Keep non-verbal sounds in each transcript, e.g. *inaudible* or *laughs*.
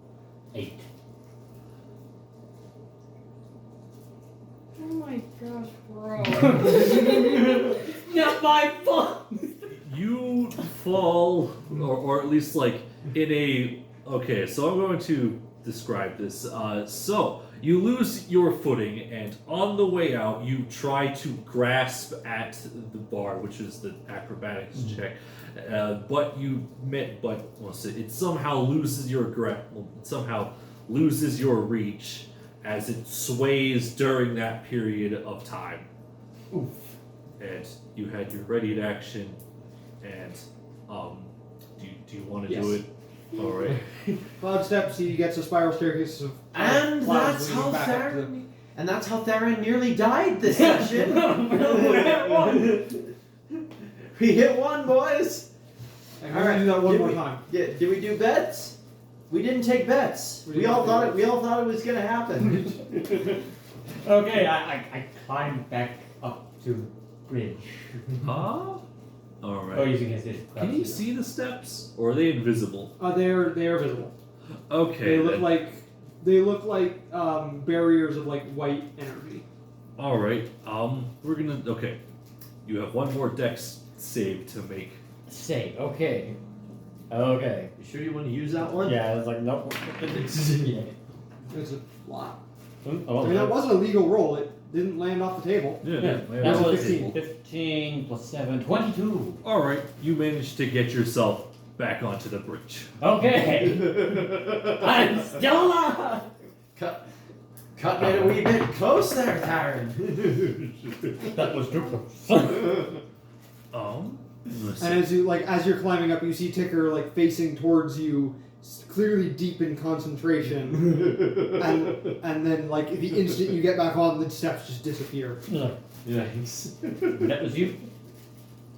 *laughs* Eight. Oh my gosh, bro. Not my fault. You fall, or, or at least like in a. Okay, so I'm going to describe this. Uh, so you lose your footing, and on the way out, you try to grasp at the bar, which is the acrobatics check. Uh, but you met, but well, so it somehow loses your grip. Well, it somehow loses your reach as it sways during that period of time. Oof. And you had your ready to action and um, do you, do you want to do Yes. it? All right. Cloud steps. He gets a spiral staircase of. uh, And that's clouds leading how back up to the- Theron. And that's how Theron nearly died this *laughs* session. *laughs* we hit one, boys. And we're gonna do that one Did more we- time. Yeah, did we do bets? We didn't take bets. We We didn't all do thought it. bets. We all thought it was gonna happen. *laughs* okay, I, I, I climb back up to bridge. *laughs* Huh? All Oh, right. using his, his Can you see the steps, or are they invisible? Uh, they are they are visible. Okay. they look then. like they look like um, barriers of like white energy. All right. Um, we're gonna. Okay. You have one more dex save to make. Say, okay. Okay. You sure you want to use that *laughs* one? Yeah, I was like, nope. yeah. It's a lot. I Oh, mean, that wasn't a legal roll. It didn't land off the table. Yeah. Yeah, yeah, that yeah. was 15 plus 7, 22. All right. You managed to get yourself back onto the bridge. Okay. *laughs* I'm still alive. Cut, cutting it a wee bit close there, Theron. *laughs* That was too close. Um. let's And see. as you like as you're climbing up, you see Ticker like facing towards you, s- clearly deep in *laughs* concentration. and and then like the instant you get back on, the steps just disappear. Yikes. that was you.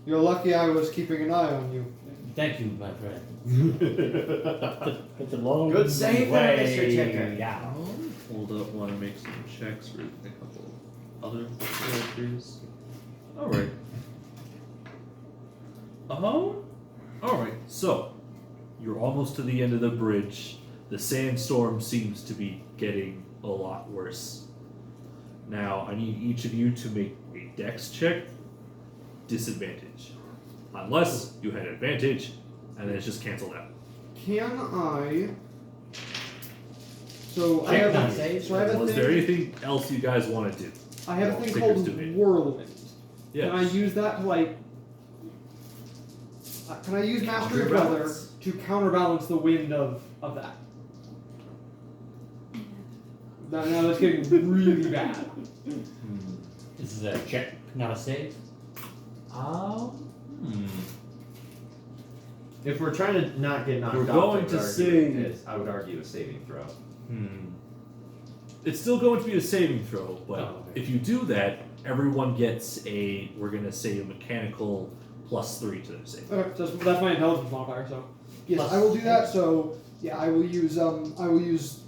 You're lucky I was keeping an eye on you. Thank you, my friend. Good It's a long save there, Mr. Ticker. Yeah. Um, Hold up. Want to make some checks for a couple other characters. All right. Um. All right. So you're almost to the end of the bridge. The sandstorm seems to be getting a lot worse. Now I need each of you to make a dex check. Disadvantage, unless you had advantage, and then it's just canceled out. Can I? So I Check have, that. a, so I have Well, a is there thing. anything else you guys want to do? I have a Well, thing figures called do it. whirlwind. Yeah. Can I use that to like? uh, Can I use mastery of weather Counterbalance. to counterbalance the wind of of that? Now, now that's getting really bad. Hmm. This is a check, not a save. Um, If we're trying to not get knocked We're off, going I would to argue sing- it is. I would argue a saving throw. Hmm. It's still going to be a saving throw, but Oh, okay. if you do that, everyone gets a. We're gonna say a mechanical plus three to their save. Okay, so that's, that's my intelligence modifier. So yes, Plus- I will do that. So yeah, I will use um I will use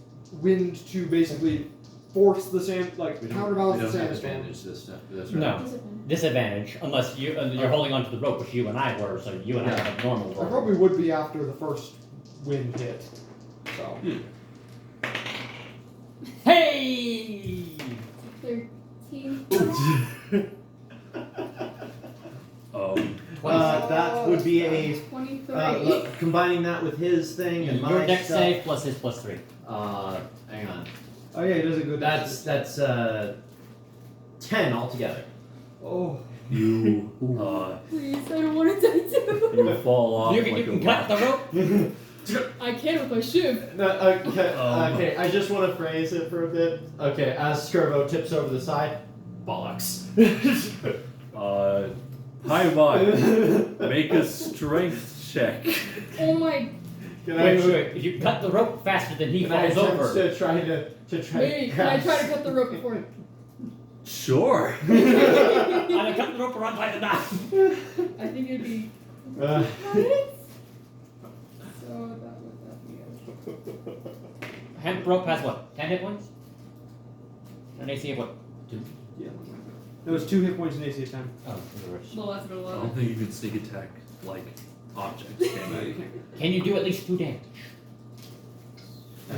wind to basically force the sand like We don't, counterbalance we don't the have sandstorm. advantage this time. That's right. No. Disadvantage, unless you, uh, you're holding onto the rope, which you and I were, so you and I Oh. Yeah. have normal I rope. probably would be after the first wind hit. So Hey! 13. Oh, Um, Uh, that would be a 23. uh, look, combining that with his thing and Your my deck stuff. save plus his plus 3. Uh, hang on. oh yeah, it is a good. That's that's uh, ten altogether. oh you uh, Please, I don't want to die too. *laughs* you fall Oh, off. you can, like you a can cut the rope. *laughs* no, I can if I should. okay, Um. okay. I just want to phrase it for a bit. Okay, as Skirvo tips over the side, *laughs* bollocks. Uh, high five. Make a strength check. Oh my. Can I- Wait, wait, wait. You cut the rope faster than he can I falls attempt over. to try to to try Wait, to can I try to grasp- cut the rope before him? Sure. I I'm gonna cut the rope around by the *laughs* knife. think it'd be. Uh, minutes? So that would that be it. Hand rope has what? 10 hit points? An AC of what? yeah. That was two hit points in AC time. Oh, reverse. The last I don't one. think you can sneak attack like objects. Can No, I? you can't. Can you do at least two damage?